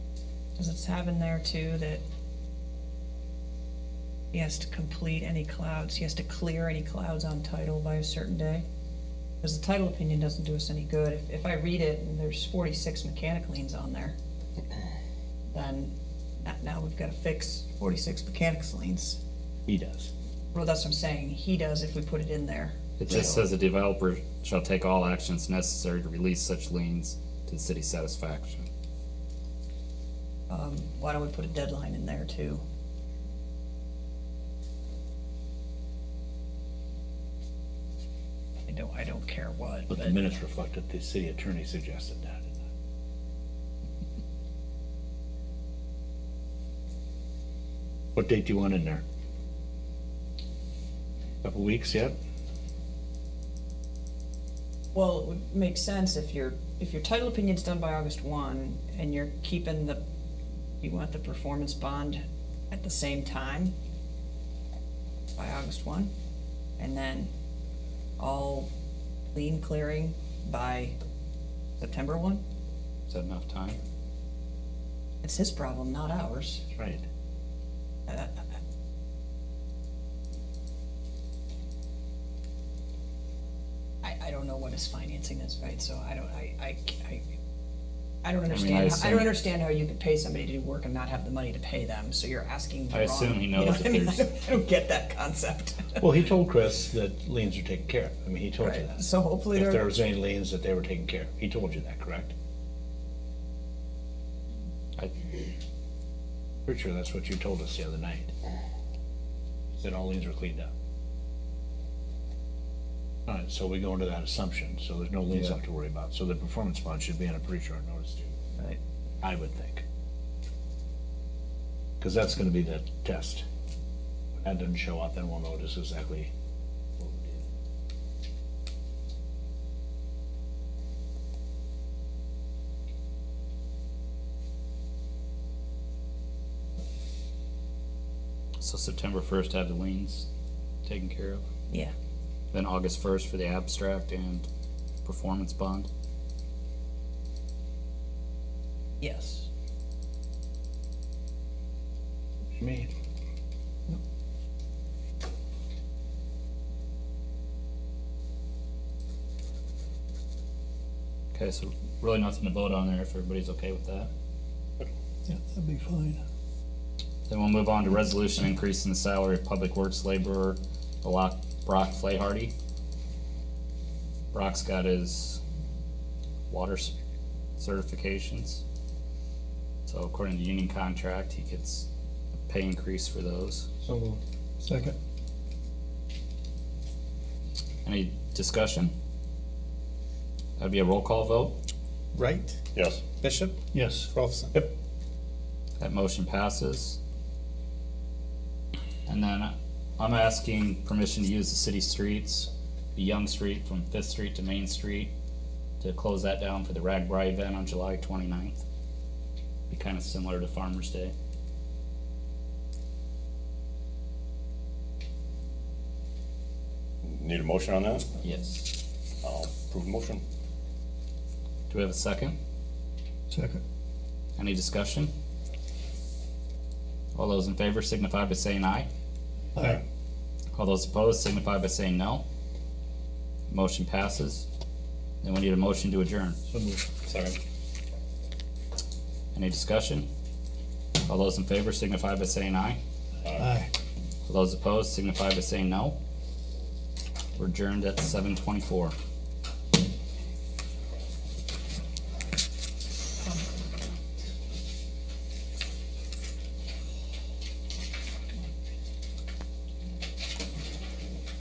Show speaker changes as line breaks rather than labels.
Because it's having there too that he has to complete any clouds, he has to clear any clouds on title by a certain day. Because the title opinion doesn't do us any good. If, if I read it and there's forty-six mechanic liens on there, then na- now we've gotta fix forty-six mechanics liens.
He does.
Well, that's what I'm saying. He does if we put it in there.
It just
So-
says the developer shall take all actions necessary to release such liens to the city's satisfaction.
Um, why don't we put a deadline in there too? I don't, I don't care what,
But
but
the minutes reflect that the city attorney suggested that. What date do you want in there? Couple weeks yet?
well, it would make sense if your, if your title opinion's done by August one and you're keeping the, you want the performance bond at the same time by August one, and then all lien clearing by September one?
Is that enough time?
It's his problem, not ours.
That's right.
I, I don't know what his financing is, right, so I don't, I, I, I, I don't
I
understand, how- I
assume-
don't understand how you could pay somebody to do work and not have the money to pay them, so you're asking the
I
wrong.
assume he
you know
knows
what
that
I mean?
there's-
I don't- I don't get that concept.
Well, he told Chris that liens are taken care of. I mean, he told you
Right,
that.
so hopefully
If there
they're,
was any liens that they were taken care of. He told you that, correct?
I,
Pretty sure that's what you told us the other night. That all liens were cleaned up. All right, so we go into that assumption, so there's no liens
Yeah.
left to worry about, so the performance bond should be on a pretty short notice too,
right,
I would think. Cause that's gonna be the test. When that doesn't show up, then we'll know just exactly. what we did.
so September first have the liens taken care of,
yeah,
then August first for the abstract and performance bond.
yes.
Me.
Okay, so really nothing to vote on there if everybody's okay with that.
Yeah, that'd be fine.
Then we'll move on to resolution increasing the salary of public works laborer Brock, Brock Flayhardy. Brock's got his water c- certifications. So according to union contract, he gets a pay increase for those.
So
Second.
Any discussion? That'd be a roll call vote.
Right?
Yes.
Bishop?
Yes.
Rolfson?
Yep.
That motion passes. And then I'm asking permission to use the city streets, the Young Street from Fifth Street to Main Street, to close that down for the Ragbri event on July 29th. Be kind of similar to Farmer's Day.
Need a motion on that?
Yes.
I'll approve the motion.
Do we have a second?
Second.
Any discussion? All those in favor signify by saying aye.
Aye.
All those opposed signify by saying no. Motion passes. Then we need a motion to adjourn.
Second.
Any discussion? All those in favor signify by saying aye.
Aye.
All those opposed signify by saying no. We're adjourned at seven twenty-four.